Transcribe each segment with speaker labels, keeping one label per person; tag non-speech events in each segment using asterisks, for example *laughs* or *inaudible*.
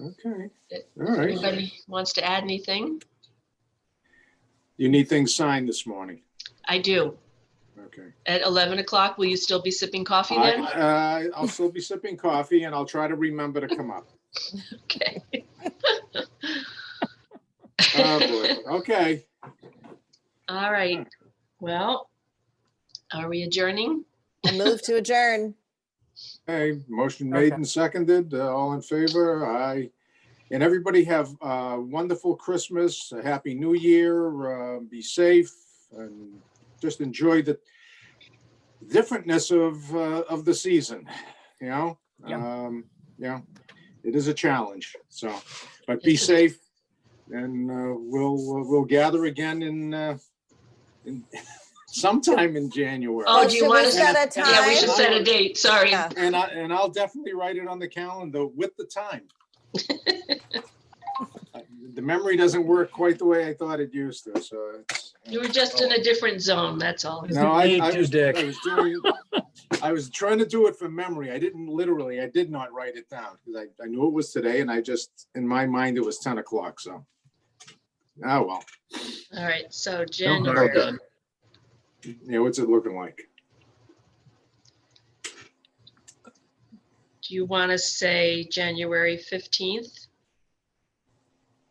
Speaker 1: Okay,
Speaker 2: It-
Speaker 1: all right.
Speaker 2: Anybody wants to add anything?
Speaker 1: You need things signed this morning.
Speaker 2: I do.
Speaker 1: Okay.
Speaker 2: At 11 o'clock, will you still be sipping coffee
Speaker 1: I,
Speaker 2: then?
Speaker 1: uh, I'll still be sipping coffee and I'll try to remember to come up.
Speaker 2: *laughs* Okay.
Speaker 1: Oh, boy. Okay.
Speaker 2: All right. Well, are we adjourning?
Speaker 3: I move to adjourn.
Speaker 1: Hey, motion made and seconded. Uh, All in favor? Aye. And everybody have a wonderful Christmas, a happy new year, uh, be safe and just enjoy the differentness of, uh, of the season, you know? Um, Yeah, it is a challenge, so, but be
Speaker 2: Yes, it
Speaker 1: safe and uh, we'll, we'll gather again in, uh, in- *laughs* sometime in January.
Speaker 2: Oh,
Speaker 3: Well,
Speaker 2: do you
Speaker 3: should we
Speaker 2: want to-
Speaker 3: set a
Speaker 2: Yeah, we
Speaker 3: time?
Speaker 2: should set a date. Sorry.
Speaker 3: Yeah.
Speaker 1: And I, and I'll definitely write it on the calendar with the time. Uh, The memory doesn't work quite the way I thought it used to, so it's.
Speaker 2: You were just in a different zone, that's all.
Speaker 4: It's
Speaker 1: No, I-
Speaker 4: me
Speaker 1: I
Speaker 4: too,
Speaker 1: was-
Speaker 4: Dick.
Speaker 1: I was doing, I was trying to do it from memory. I didn't literally, I did not write it down because I, I knew it was today and I just, in my mind, it was ten o'clock, so. Oh, well,
Speaker 2: All right, so
Speaker 4: Don't worry
Speaker 2: January.
Speaker 4: about
Speaker 1: yeah, what's it looking like?
Speaker 2: Do you want to say January 15th?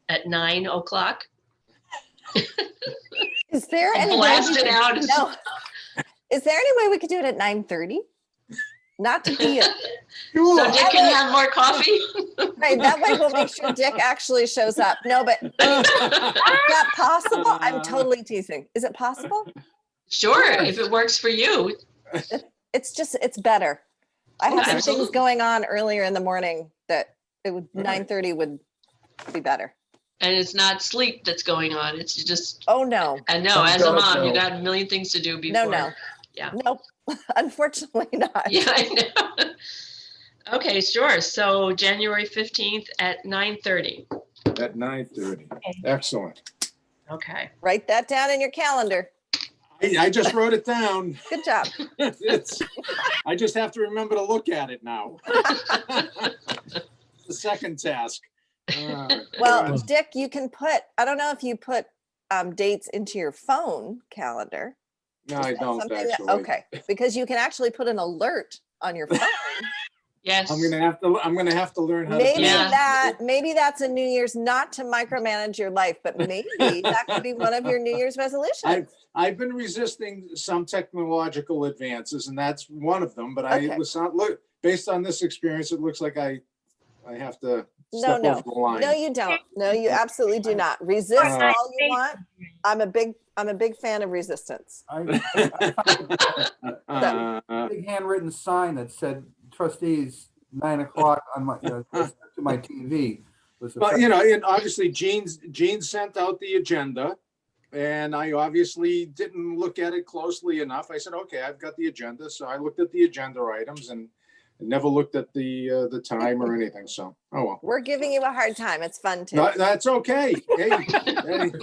Speaker 2: At 9 o'clock?
Speaker 3: Is there any? way we
Speaker 2: Blast it
Speaker 3: could-
Speaker 2: out.
Speaker 3: No. Is there any way we could do it at nine thirty? Not to
Speaker 2: *laughs*
Speaker 3: be, a-
Speaker 2: So Dick can have more coffee?
Speaker 3: right, that way we'll make sure Dick actually shows up. No, but is that possible?
Speaker 2: *laughs*
Speaker 3: I'm totally teasing. Is it possible?
Speaker 2: Sure, if it works for you.
Speaker 3: It's just, it's better. I have some things
Speaker 2: Absolutely.
Speaker 3: going on earlier in the morning that it would,
Speaker 2: Mm-hmm.
Speaker 1: Right.
Speaker 3: nine thirty would be better.
Speaker 2: And it's not sleep that's going on. It's just,
Speaker 3: Oh, no,
Speaker 2: I know,
Speaker 4: Some
Speaker 2: as a
Speaker 4: don't
Speaker 2: mom, you
Speaker 4: know.
Speaker 2: got a million things to do before.
Speaker 3: no, no.
Speaker 2: Yeah.
Speaker 3: Nope, *laughs* unfortunately not.
Speaker 2: *laughs* Yeah, I know. Okay, sure. So January 15th at 9:30.
Speaker 1: At nine thirty. Excellent.
Speaker 2: Okay.
Speaker 3: Write that down in your calendar.
Speaker 1: I, I just wrote it down.
Speaker 3: Good job.
Speaker 1: It's, I just have to remember to look at it now. *laughs* The second
Speaker 3: *laughs*
Speaker 1: task. Uh,
Speaker 3: Well,
Speaker 1: God.
Speaker 3: Dick, you can put, I don't know if you put um, dates into your phone calendar.
Speaker 1: No, I
Speaker 3: Is that
Speaker 1: don't
Speaker 3: something that-
Speaker 1: actually.
Speaker 3: Okay, because you can actually put an alert on your
Speaker 1: *laughs*
Speaker 3: phone.
Speaker 2: Yes.
Speaker 1: I'm gonna have to, I'm gonna have to learn how to.
Speaker 3: Maybe
Speaker 1: do
Speaker 2: Yeah.
Speaker 3: that, maybe that's a New Year's, not to micromanage your life, but maybe that could be one of your New Year's
Speaker 1: I,
Speaker 3: resolutions.
Speaker 1: I've been resisting some technological advances and that's one of them, but I
Speaker 3: Okay.
Speaker 1: it was not, look, based on this experience, it looks like I, I have to
Speaker 3: No,
Speaker 1: step
Speaker 3: no.
Speaker 1: over the
Speaker 3: No,
Speaker 1: line.
Speaker 3: you don't. No, you absolutely do not. Resist
Speaker 1: Uh,
Speaker 3: all you want. I'm a big, I'm a big fan of resistance.
Speaker 5: I
Speaker 1: Uh,
Speaker 5: big handwritten sign that said trustees, nine o'clock on my, you know, to my TV. was the
Speaker 1: Well,
Speaker 5: first-
Speaker 1: you know, and obviously Jean's, Jean sent out the agenda. And I obviously didn't look at it closely enough. I said, okay, I've got the agenda. So I looked at the agenda items and never looked at the, uh, the time or anything. So, oh, well.
Speaker 3: We're giving you a hard time. It's fun too.
Speaker 1: No, that's okay. Hey, hey,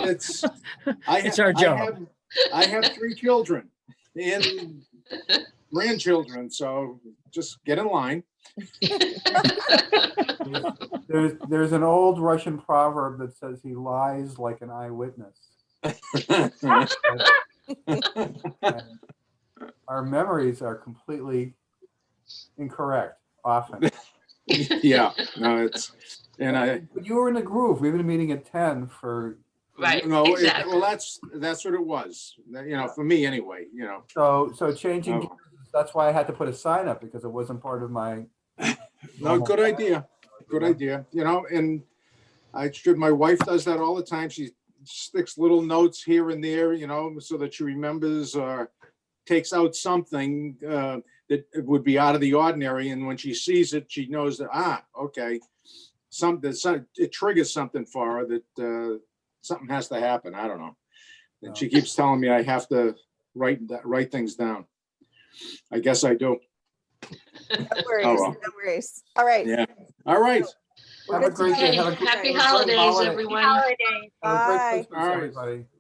Speaker 1: it's. I
Speaker 4: It's
Speaker 1: ha-
Speaker 4: our
Speaker 1: I
Speaker 4: job.
Speaker 1: have- I have three children and grandchildren, so just get in line. *laughs*
Speaker 5: There's, there's an old Russian proverb that says he lies like an eyewitness. And Our memories are completely incorrect
Speaker 1: *laughs*
Speaker 5: often.
Speaker 1: Yeah, no, it's, and I,
Speaker 5: But you were in the groove. We've been meeting at ten for,
Speaker 2: Right,
Speaker 1: No, it-
Speaker 2: exactly.
Speaker 1: Well, that's, that's what it was, you know, for me anyway, you know.
Speaker 5: so, so changing,
Speaker 1: Oh.
Speaker 5: gears, that's why I had to put a sign up because it wasn't part of my.
Speaker 1: No, good idea, good idea, you know, and I should, my wife does that all the time. She sticks little notes here and there, you know, so that she remembers or takes out something uh, that would be out of the ordinary. And when she sees it, she knows that, ah, okay, something, some- it triggers something for her that uh, something has to happen. I don't know. And she keeps telling me I have to write, write things down. I guess I do.
Speaker 3: No worries,
Speaker 1: oh, well.
Speaker 3: no worries. All right.
Speaker 1: Yeah. All right.
Speaker 5: Have a great day.
Speaker 2: Okay,
Speaker 5: Have a great-
Speaker 2: Happy
Speaker 5: have a great
Speaker 2: holidays,
Speaker 5: holiday.
Speaker 2: everyone.
Speaker 6: holiday.
Speaker 5: Have a great
Speaker 3: Bye.
Speaker 5: Christmas,
Speaker 1: All right.
Speaker 5: everybody.